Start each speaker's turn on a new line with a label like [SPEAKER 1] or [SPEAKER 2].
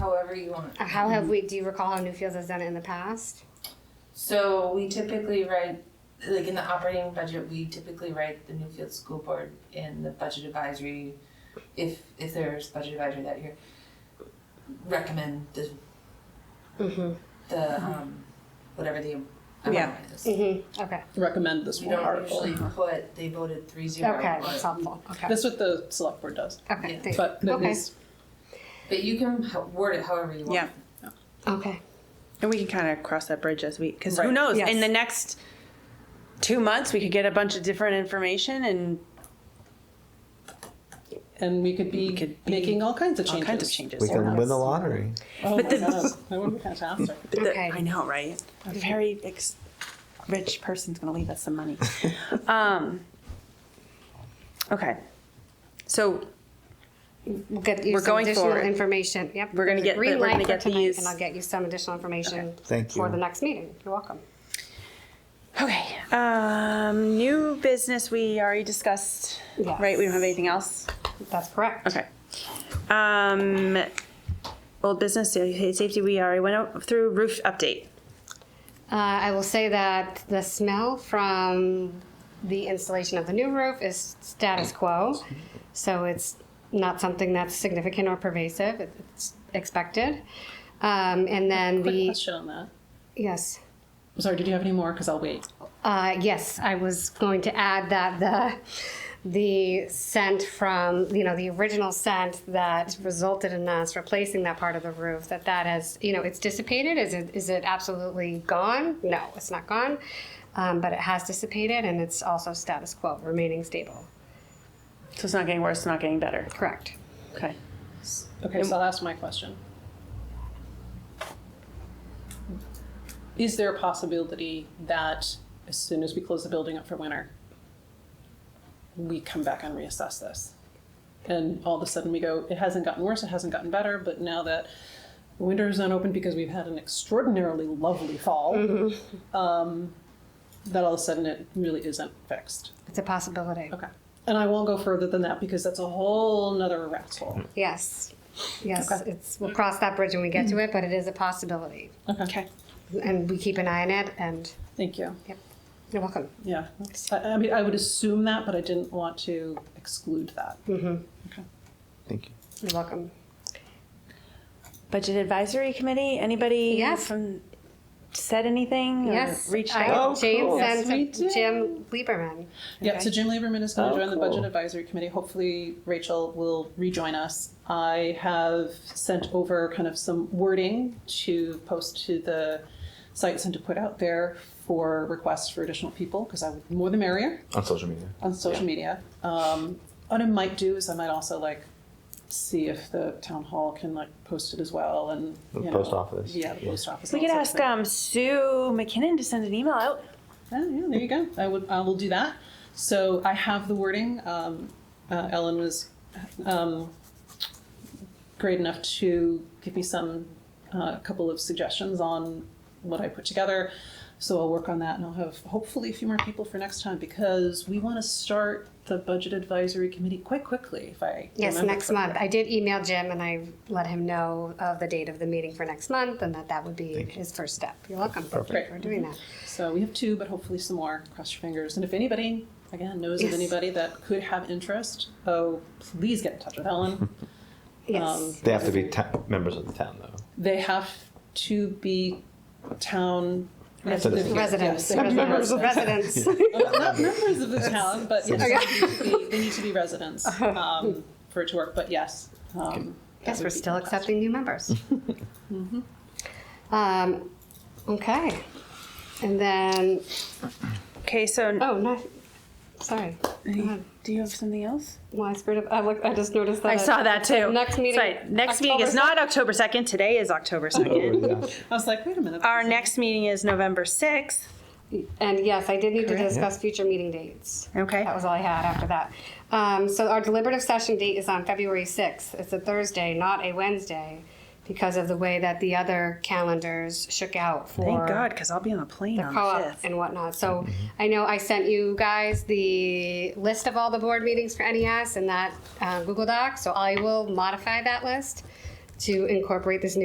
[SPEAKER 1] however you want.
[SPEAKER 2] How have we, do you recall how Newfields has done it in the past?
[SPEAKER 1] So we typically write, like in the operating budget, we typically write the Newfield School Board in the budget advisory, if, if there's budget advisory that year, recommend the,
[SPEAKER 2] Mm-hmm.
[SPEAKER 1] the, um, whatever the amount
[SPEAKER 3] Yeah.
[SPEAKER 1] is.
[SPEAKER 2] Mm-hmm. Okay.
[SPEAKER 3] recommend this
[SPEAKER 1] We
[SPEAKER 3] one
[SPEAKER 1] don't
[SPEAKER 3] article.
[SPEAKER 1] usually put, they voted three zero.
[SPEAKER 2] Okay. That's helpful. Okay.
[SPEAKER 3] That's what the select board does,
[SPEAKER 2] okay.
[SPEAKER 1] yeah.
[SPEAKER 2] thank-
[SPEAKER 3] but it
[SPEAKER 2] Okay.
[SPEAKER 3] is,
[SPEAKER 1] But you can h- word it however you want.
[SPEAKER 4] Yeah.
[SPEAKER 2] Okay.
[SPEAKER 4] And we can kind of cross that bridge as we, because who
[SPEAKER 3] Right.
[SPEAKER 4] knows?
[SPEAKER 3] Yes.
[SPEAKER 4] In the next two months, we could get a bunch of different information and
[SPEAKER 3] and we could be
[SPEAKER 4] We could be
[SPEAKER 3] making all kinds of
[SPEAKER 4] all
[SPEAKER 3] changes.
[SPEAKER 4] kinds of changes.
[SPEAKER 5] We can win the
[SPEAKER 4] lot.
[SPEAKER 5] lottery.
[SPEAKER 3] Oh my
[SPEAKER 4] But the-
[SPEAKER 3] God, that would be fantastic.
[SPEAKER 2] Okay.
[SPEAKER 4] I know, right? A very ex- rich person's going to leave us some money. um, okay. So
[SPEAKER 2] We'll get you
[SPEAKER 4] We're
[SPEAKER 2] some
[SPEAKER 4] going
[SPEAKER 2] additional
[SPEAKER 4] forward.
[SPEAKER 2] information. Yep.
[SPEAKER 4] We're gonna
[SPEAKER 2] There's a
[SPEAKER 4] get-
[SPEAKER 2] green
[SPEAKER 4] we're gonna
[SPEAKER 2] light for
[SPEAKER 4] get
[SPEAKER 2] tonight,
[SPEAKER 4] these-
[SPEAKER 2] and I'll get you some additional information.
[SPEAKER 5] Thank
[SPEAKER 2] for
[SPEAKER 5] you.
[SPEAKER 2] the next meeting. You're welcome.
[SPEAKER 4] Okay, um, new business we already discussed,
[SPEAKER 2] Yes.
[SPEAKER 4] right? We don't have anything else?
[SPEAKER 2] That's correct.
[SPEAKER 4] Okay. Um, old business, sa- safety, we already went out through roof update.
[SPEAKER 2] Uh, I will say that the smell from the installation of the new roof is status quo, so it's not something that's significant or pervasive. It- It's expected. Um, and then
[SPEAKER 3] Quick
[SPEAKER 2] the
[SPEAKER 3] question on that.
[SPEAKER 2] yes.
[SPEAKER 3] I'm sorry, did you have any more? Because I'll wait.
[SPEAKER 2] Uh, yes, I was going to add that the the scent from you know the original scent that resulted in us replacing that part of the roof that that has you know it's dissipated. Is it is it absolutely gone? No, it's not gone, um, but it has dissipated and it's also status quo, remaining stable.
[SPEAKER 4] So it's not getting worse, it's not getting better.
[SPEAKER 2] Correct.
[SPEAKER 4] Okay.
[SPEAKER 3] Okay, so I'll ask my question. Is there a possibility that as soon as we close the building up for winter, we come back and reassess this? And all of a sudden we go, it hasn't gotten worse, it hasn't gotten better, but now that winter is not open because we've had an extraordinarily lovely fall, um, that all of a sudden it really isn't fixed.
[SPEAKER 2] It's a possibility.
[SPEAKER 3] Okay. And I won't go further than that because that's a whole nother rat's hole.
[SPEAKER 2] Yes, yes.
[SPEAKER 3] Okay.
[SPEAKER 2] It's we'll cross that bridge when we get to it, but it is a possibility,
[SPEAKER 4] Okay.
[SPEAKER 2] and we keep an eye on it. And
[SPEAKER 3] Thank you.
[SPEAKER 2] you're welcome.
[SPEAKER 3] Yeah, I, I mean, I would assume that, but I didn't want to exclude that.
[SPEAKER 5] Thank you.
[SPEAKER 2] You're welcome.
[SPEAKER 4] Budget Advisory Committee, anybody?
[SPEAKER 2] Yes.
[SPEAKER 4] From, said anything? or
[SPEAKER 2] Yes,
[SPEAKER 4] Reached
[SPEAKER 2] I-
[SPEAKER 4] out?
[SPEAKER 2] James
[SPEAKER 5] cool.
[SPEAKER 2] and
[SPEAKER 3] Yes, we
[SPEAKER 2] Jim Lieberman.
[SPEAKER 3] Yeah, so Jim Lieberman is going
[SPEAKER 5] Oh,
[SPEAKER 3] to join the
[SPEAKER 5] cool.
[SPEAKER 3] Budget Advisory Committee. Hopefully, Rachel will rejoin us. I have sent over kind of some wording to post to the sites and to put out there for requests for additional people because I would more the merrier
[SPEAKER 5] On social media.
[SPEAKER 3] on social media. Um, what I might do is I might also like see if the town hall can like post it as well and
[SPEAKER 5] The
[SPEAKER 3] you
[SPEAKER 5] post
[SPEAKER 3] know,
[SPEAKER 5] office.
[SPEAKER 3] Yeah, the
[SPEAKER 5] Yeah.
[SPEAKER 3] post office.
[SPEAKER 4] We
[SPEAKER 3] and
[SPEAKER 4] could
[SPEAKER 3] all
[SPEAKER 4] ask
[SPEAKER 3] sorts of
[SPEAKER 4] um, Sue McKinnon to send an email out.
[SPEAKER 3] Oh, yeah, there you go. I would, I will do that. So I have the wording. Um, uh, Ellen was um, great enough to give me some, a couple of suggestions on what I put together. So I'll work on that, and I'll have hopefully a few more people for next time because we want to start the budget advisory committee quite quickly. If I
[SPEAKER 2] Yes,
[SPEAKER 3] remember
[SPEAKER 2] next
[SPEAKER 3] correctly.
[SPEAKER 2] month. I did email Jim and I let him know of the date of the meeting for next month and that that would be his first step. You're welcome.
[SPEAKER 5] Perfect.
[SPEAKER 2] For doing that.
[SPEAKER 3] So we have two, but hopefully some more. Cross your fingers. And if anybody, again, knows
[SPEAKER 2] Yes.
[SPEAKER 3] of anybody that could have interest, oh, please get in touch with Ellen. Um,
[SPEAKER 2] Yes.
[SPEAKER 5] They have to be ta- members of the town, though.
[SPEAKER 3] They have to be town
[SPEAKER 5] Residents.
[SPEAKER 3] residents.
[SPEAKER 2] Residents,
[SPEAKER 3] Yes, they have to be
[SPEAKER 2] residents, residents.
[SPEAKER 3] residents. Not members of the town, but yes, they, need to be, they need to be residents um, for it to work. But yes. Um, that
[SPEAKER 2] Yes,
[SPEAKER 3] would
[SPEAKER 2] we're
[SPEAKER 3] be
[SPEAKER 2] still
[SPEAKER 3] fantastic.
[SPEAKER 2] accepting new members. Mm-hmm. Um, okay. And then,
[SPEAKER 4] Okay, so
[SPEAKER 2] oh, no, sorry.
[SPEAKER 4] do you have something else?
[SPEAKER 2] Well, I screwed up. I looked, I just noticed that.
[SPEAKER 4] I saw that too.
[SPEAKER 2] Next meeting,
[SPEAKER 4] Sorry, next meeting is
[SPEAKER 2] October
[SPEAKER 4] not October 2nd. Today is October 2nd.
[SPEAKER 5] Oh, yeah.
[SPEAKER 3] I was like, wait a minute.
[SPEAKER 4] Our next meeting is November 6th.
[SPEAKER 2] And yes, I did need to
[SPEAKER 3] Correct.
[SPEAKER 2] discuss future meeting dates.
[SPEAKER 4] Okay.
[SPEAKER 2] That was all I had after that. Um, so our deliberative session date is on February 6th. It's a Thursday, not a Wednesday, because of the way that the other calendars shook out for
[SPEAKER 4] Thank God, because I'll be on a plane
[SPEAKER 2] the
[SPEAKER 4] on
[SPEAKER 2] co-op
[SPEAKER 4] the 5th.
[SPEAKER 2] and whatnot. So I know I sent you guys the list of all the board meetings for E NES and that uh, Google Doc. So I will modify that list to incorporate this new